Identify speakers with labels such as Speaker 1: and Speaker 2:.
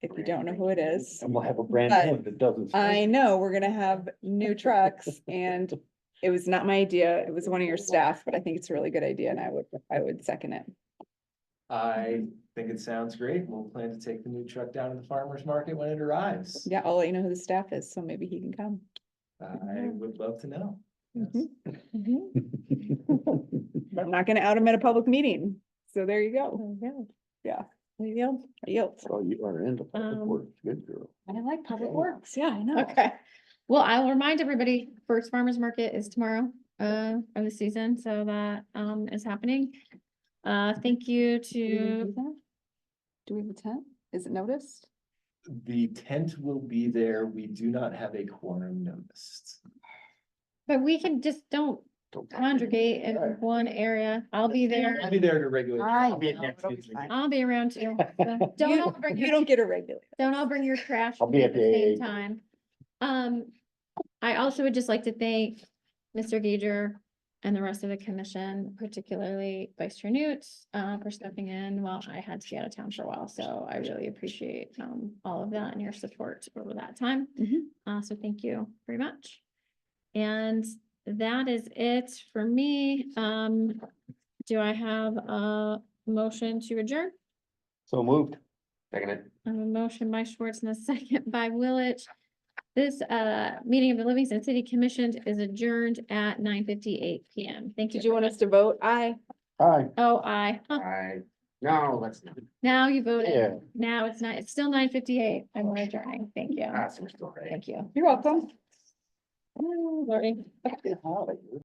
Speaker 1: if you don't know who it is.
Speaker 2: And we'll have a brand
Speaker 1: But
Speaker 2: name that doesn't.
Speaker 1: I know we're gonna have new trucks and it was not my idea. It was one of your staff, but I think it's a really good idea and I would, I would second it.
Speaker 3: Mm-hmm.
Speaker 4: I think it sounds great. We'll plan to take the new truck down to the farmer's market when it arrives.
Speaker 1: Yeah, I'll let you know who the staff is, so maybe he can come.
Speaker 4: I would love to know. Yes.
Speaker 3: Mm-hmm.
Speaker 1: Mhm. Mhm. But I'm not gonna out him at a public meeting. So there you go. Yeah.
Speaker 5: There you go.
Speaker 1: Yep.
Speaker 2: So Oh, you are into public
Speaker 5: Um,
Speaker 2: works, good girl.
Speaker 3: I like public
Speaker 2: Okay.
Speaker 3: works.
Speaker 1: Yeah, I know.
Speaker 5: Okay,
Speaker 3: Well, I will remind everybody, first farmer's market is tomorrow, uh, of the season, so that, um, is happening. Uh, thank you to,
Speaker 1: Do we have a tent? Is it noticed?
Speaker 4: The tent will be there. We do not have a quorum noticed.
Speaker 3: but we can just don't
Speaker 2: Don't-
Speaker 3: congregate in
Speaker 2: Right.
Speaker 3: one area. I'll be
Speaker 4: I'll
Speaker 3: there.
Speaker 4: be there to regulate.
Speaker 5: Aye.
Speaker 4: I'll be at next meeting.
Speaker 3: I'll be around too. so Don't all bring
Speaker 1: You
Speaker 3: your
Speaker 1: don't get a regular.
Speaker 3: Don't all bring your trash.
Speaker 2: I'll be at the AA.
Speaker 3: same Time. Um, I also would just like to thank Mr. Gager and the rest of the commission, particularly Vice Chair Newt, uh, for stepping in while I had to be out of town for a while. So I really appreciate, um, all of that and your support over that time.
Speaker 1: Mhm.
Speaker 3: Uh, so thank you very much. And that is it for me. Um, do I have a motion to adjourn?
Speaker 2: So moved. Second it.
Speaker 3: I have a motion by Schwartz and a second by Willett. This uh meeting of the Livingston City Commission is adjourned at nine fifty-eight PM. Thank you.
Speaker 1: Did you want us to vote? Aye.
Speaker 2: Aye.
Speaker 3: Oh, I,
Speaker 2: Aye. No, that's not.
Speaker 3: now you
Speaker 2: Yeah.
Speaker 3: voted. Now it's not, it's still nine fifty-eight. I'm adjourning. Thank you.
Speaker 2: That's still right.
Speaker 3: Thank you.
Speaker 1: You're welcome.
Speaker 3: Learning.
Speaker 2: Get out of here.